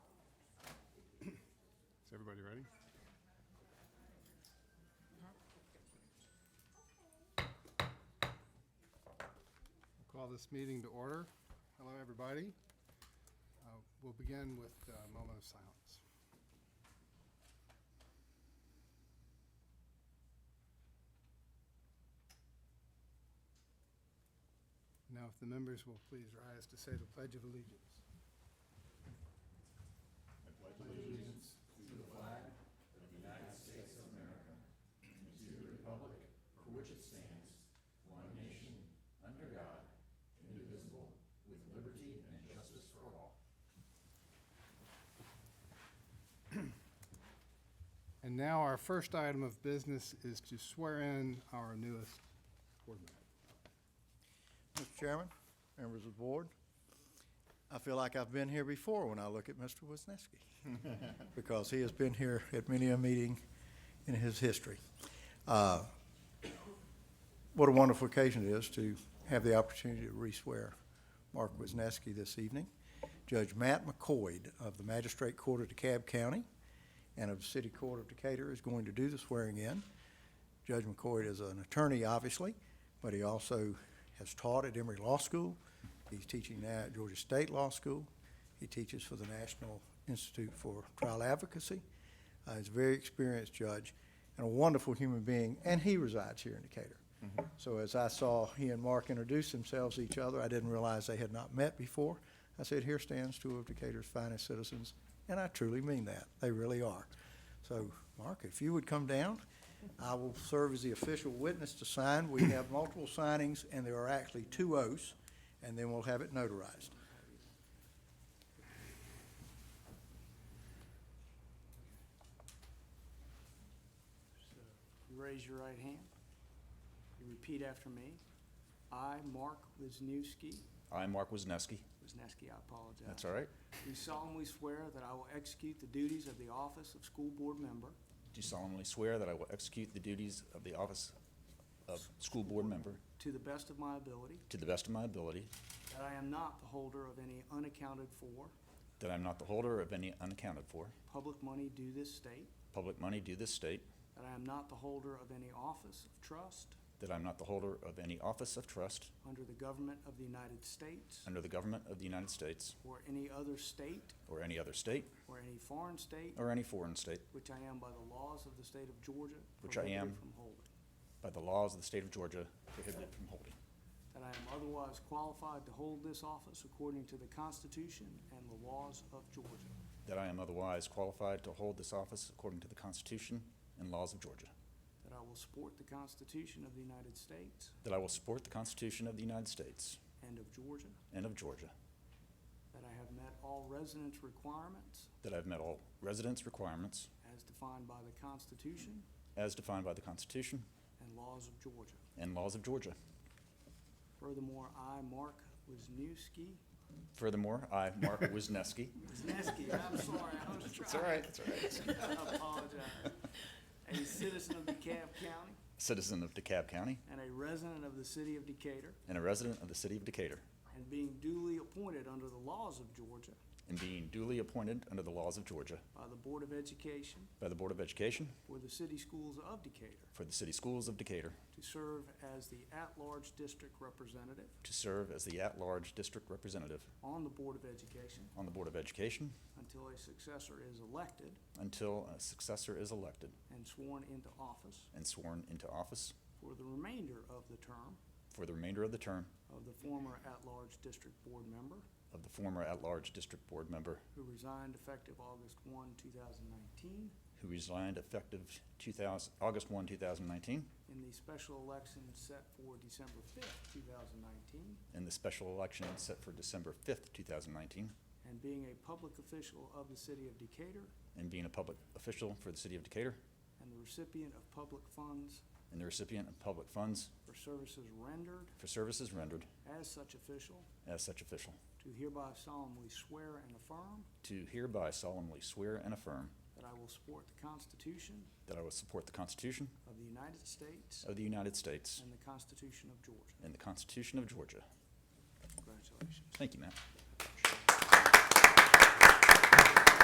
Ready? We'll Call this meeting to order. Hello, everybody. Uh, We'll begin with a moment of silence. Now, if the members will please rise to say the Pledge of Allegiance. And now our first item of business is to swear in our newest board member. Mr. Chairman, members of the board, I feel like I've been here before when I look at Mr. Wisniewski, because he has been here at many a meeting in his history. Uh, What a wonderful occasion it is to have the opportunity to re-swear Mark Wisniewski this evening. Judge Matt McCoyd of the Magistrate Court of DeKalb County and of the City Court of Decatur is going to do the swearing-in. Judge McCoy is an attorney, obviously, but he also has taught at Emory Law School. He's teaching now at Georgia State Law School. He teaches for the National Institute for Trial Advocacy. Uh, he's a very experienced judge and a wonderful human being, and he resides here in Decatur. So as I saw he and Mark introduce themselves to each other, I didn't realize they had not met before. I said, "Here stands two of Decatur's finest citizens," and I truly mean that. They really are. So, Mark, if you would come down, I will serve as the official witness to sign. We have multiple signings, and there are actually two oaths, and then we'll have it notarized. So, uh, you Raise your right hand. You repeat after me. I, Mark Wisniewski, I, Mark Wisniewski. Wisniewski, I apologize. That's all right. Do solemnly swear that I will execute the duties of the office of school board member Do solemnly swear that I will execute the duties of the office of school board member to the best of my ability, to the best of my ability, that I am not the holder of any unaccounted-for that I am not the holder of any unaccounted for public money due this state, public money due this state, that I am not the holder of any office of trust that I am not the holder of any office of trust under the government of the United States under the government of the United States or any other state or any other state or any foreign state, or any foreign state which I am by the laws of the state of Georgia Which I am. prohibited from holding. by the laws of the state of Georgia prohibited from holding, That I am otherwise qualified to hold this office according to the Constitution and the laws of Georgia. that I am otherwise qualified to hold this office according to the Constitution and laws of Georgia, That I will support the Constitution of the United States that I will support the Constitution of the United States and of Georgia. and of Georgia, That I have met all residence requirements that I have met all residence requirements as defined by the Constitution as defined by the Constitution and laws of Georgia. and laws of Georgia. Furthermore, I, Mark Wisniewski, Furthermore, I, Mark Wisniewski. Wisniewski, I'm sorry, I was trying. that's all right. I apologize. A citizen of DeKalb County Citizen of DeKalb County and a resident of the city of Decatur, and a resident of the city of Decatur, and being duly appointed under the laws of Georgia and being duly appointed under the laws of Georgia by the Board of Education by the Board of Education for the city schools of Decatur for the city schools of Decatur to serve as the at-large district representative to serve as the at-large district representative on the Board of Education on the Board of Education until a successor is elected until a successor is elected and sworn into office and sworn into office for the remainder of the term for the remainder of the term of the former at-large district board member of the former at-large district board member who resigned effective August 1, 2019, who resigned effective 2000 August 1, 2019, in the special election set for December 5th, 2019, in the special election set for December 5th, 2019, and being a public official of the city of Decatur and being a public official for the City of Decatur and the recipient of public funds and the recipient of public funds for services rendered for services rendered as such official, as such official, do hereby solemnly swear and affirm to hereby solemnly swear and affirm that I will support the Constitution that I will support the Constitution of the United States of the United States and the Constitution of Georgia. and the Constitution of Georgia. Congratulations. Thank you, Matt.